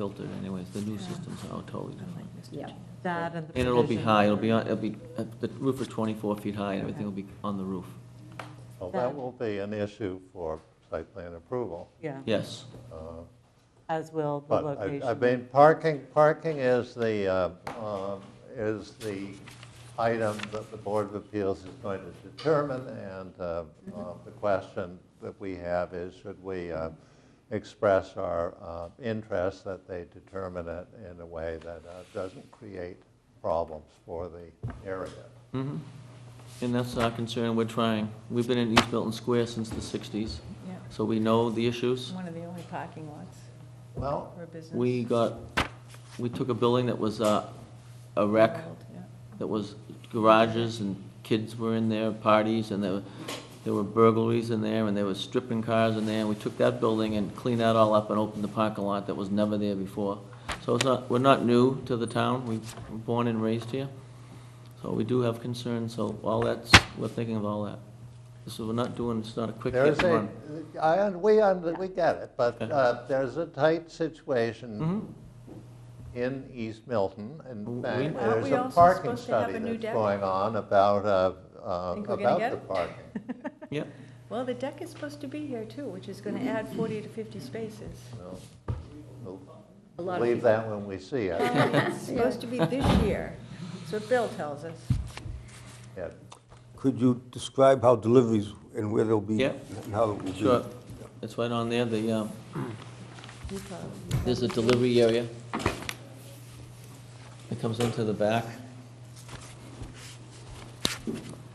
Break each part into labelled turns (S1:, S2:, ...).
S1: filtered anyways, the new systems are totally different.
S2: Yeah, that and the.
S1: And it'll be
S2: provision.
S1: high, it'll be, on- it'll be, uh, the roof is 24 feet high, and everything will be on the roof.
S3: Well,
S2: That-
S3: that will be an issue for site plan approval.
S2: Yeah,
S1: Yes,
S2: as will the
S3: But I-
S2: location.
S3: I mean, parking, parking is the, uh, uh, is the item that the Board of Appeals is going to determine, and uh, uh, the question that we have is, should we uh, express our uh, interest that they determine it in a way that uh, doesn't create problems for the area?
S2: Mm-hmm.
S1: and that's our concern, we're trying. We've been in East Milton Square since the 60s,
S4: Yeah,
S1: so we know the issues.
S4: it's one of the only parking lots
S3: Well,
S4: for a business.
S1: We got, we took a building that was uh, a wreck,
S4: Yeah.
S1: that was garages and kids were in there, parties, and there were, there were burglaries in there, and there were stripping cars in there, and we took that building and cleaned that all up and opened the parking lot that was never there before. So it's not, we're not new to the town, we were born and raised here, so we do have concerns, so all that's, we're thinking of all that. So we're not doing, it's not a quick
S3: There is
S1: hit and
S3: a,
S1: run.
S3: I, un- we, un- we get it, but
S1: Okay.
S3: uh, there's a tight situation
S1: Mm-hmm,
S3: in East Milton.
S1: W-
S3: In
S1: we-
S3: fact,
S1: Aren't
S3: there's
S4: we
S3: a
S4: also
S3: parking
S4: supposed to have
S3: study
S4: a new
S3: that's
S4: deck?
S3: going on about, uh, uh,
S4: Think we're gonna
S3: about
S4: get
S3: the
S4: it?
S3: parking.
S1: Yep,
S4: Well, the deck is supposed to be here too, which is going to add 40 to 50 spaces.
S3: Well, we'll
S4: A lot of
S3: Leave
S4: people.
S3: that when we see it.
S4: It's supposed to be this year. That's what Bill tells us.
S3: Yeah.
S5: Could you describe how deliveries and where they'll be?
S1: Yeah.
S5: And how it will be?
S1: sure, it's right on there, the, um,
S4: You probably-
S1: There's a delivery area. It comes into the back.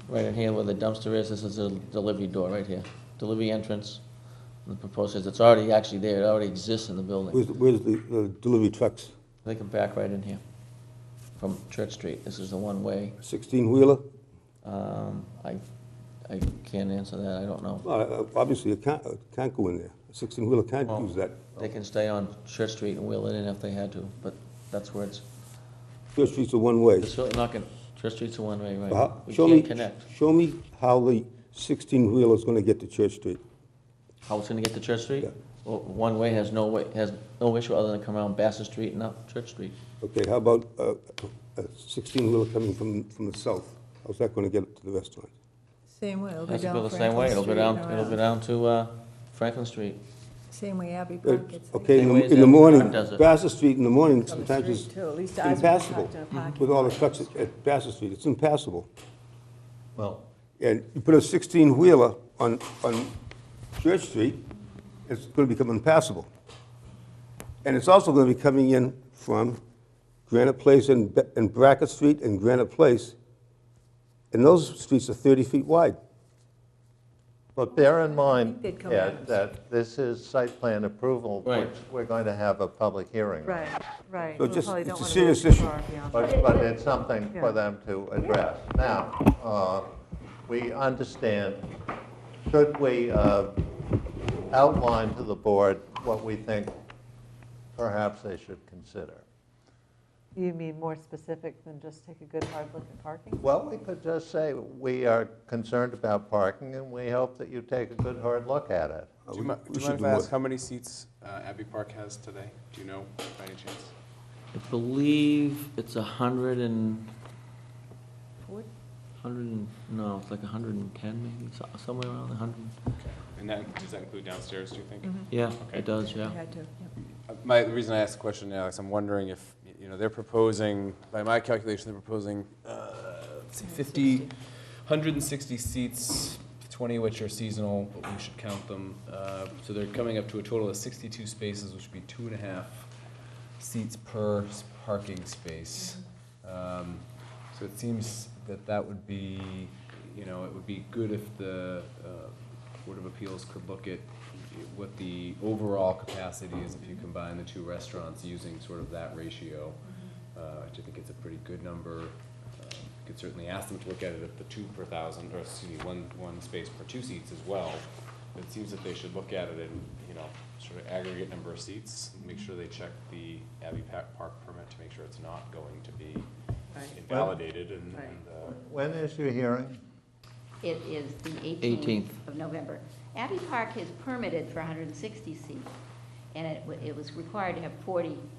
S1: Right in here where the dumpster is, this is a delivery door right here. Delivery entrance. The proposal is, it's already actually there, it already exists in the building.
S5: Where's, where's the, the delivery trucks?
S1: They can back right in here from Church Street. This is the one-way.
S5: Sixteen-wheeler?
S1: Um, I, I can't answer that, I don't know.
S5: Well, uh, obviously, it can't, it can't go in there. Sixteen-wheeler can't
S1: Well-
S5: use that.
S1: They can stay on Church Street and wheel it in if they had to, but that's where it's,
S5: Church Street's a one-way.
S1: it's certainly not gonna, Church Street's a one-way,
S5: So how-
S1: right? We
S5: Show me,
S1: can't connect.
S5: show me how the sixteen-wheeler's gonna get to Church Street.
S1: How it's gonna get to Church Street?
S5: Yeah.
S1: Well, one way has no way, has no issue other than come around Bassett Street and up Church Street.
S5: Okay, how about uh, a sixteen-wheeler coming from, from the south? How's that gonna get to the restaurant?
S6: Same way, it'll be
S1: Has to go
S6: down
S1: the same
S6: Franklin
S1: way, it'll
S6: Street
S1: go
S6: and
S1: down, it'll go
S6: around.
S1: down to, uh, Franklin Street.
S6: Same way Abbey
S5: Uh,
S6: Park gets.
S5: Okay, in
S1: Same way as
S5: the, in the
S1: that
S5: morning,
S1: car does it.
S5: Bassett Street in the morning
S4: the
S5: sometimes
S4: street,
S5: is
S4: Oh, too. At least ours was
S5: impassable.
S4: parked in a parking
S5: With all the
S4: lot.
S5: trucks at- at Bassett Street, it's impassable.
S3: Well,
S5: And you put a 16-wheeler on, on Church Street, it's going to become impassable. And it's also going to be coming in from Granite Place and Be- and Brackett Street and Granite Place. And those streets are 30 feet wide.
S3: But bear in mind,
S6: they'd come
S3: yeah,
S6: out of-
S3: that this is site plan approval,
S1: Right.
S3: which we're going to have a public hearing on.
S2: Right, right.
S5: So
S2: We
S5: just-
S2: probably don't
S5: it's a
S2: wanna
S5: serious
S2: go too
S5: issue.
S2: far beyond that.
S3: But, but it's something
S2: Yeah.
S3: for them to address. Now, uh, we understand, should we uh, outline to the board what we think perhaps they should consider?
S2: You mean more specific than just take a good hard look at parking?
S3: Well, we could just say, we are concerned about parking, and we hope that you take a good, hard look at it.
S7: Do you mi-
S5: Oh, we
S7: do you
S5: should
S7: mind if
S5: do
S7: I
S5: more.
S7: ask how many seats uh, Abbey Park has today? Do you know by any chance?
S1: I believe it's a hundred and,
S4: What?
S1: hundred and, no, it's like a hundred and ten maybe, so- somewhere around a hundred.
S7: Okay. And that, does that include downstairs, do you think?
S1: Yeah,
S7: Okay.
S1: it does,
S4: We
S1: yeah.
S4: had to, yeah.
S7: Uh, My, the reason I asked the question, Alex, I'm wondering if, y- you know, they're proposing, by my calculation, they're proposing, uh, let's see, 50, 160 seats, 20 which are seasonal, but we should count them. Uh, So they're coming up to a total of 62 spaces, which would be two and a half seats per s- parking space. Um, So it seems that that would be, you know, it would be good if the uh, Board of Appeals could look at what the overall capacity is if you combine the two restaurants using sort of that ratio. Uh, which I think it's a pretty good number. Uh, you Could certainly ask them to look at it at the two per thousand, or excuse me, one, one space per two seats as well. It seems that they should look at it in, you know, sort of aggregate number of seats, make sure they check the Abbey Pa- Park permit to make sure it's not going to be
S4: Right.
S7: invalidated and,
S4: Right.
S7: and, uh,
S3: When is your hearing?
S8: It is the 18th
S1: 18th.
S8: of November. Abbey Park is permitted for 160 seats, and it wa- it was required to have 40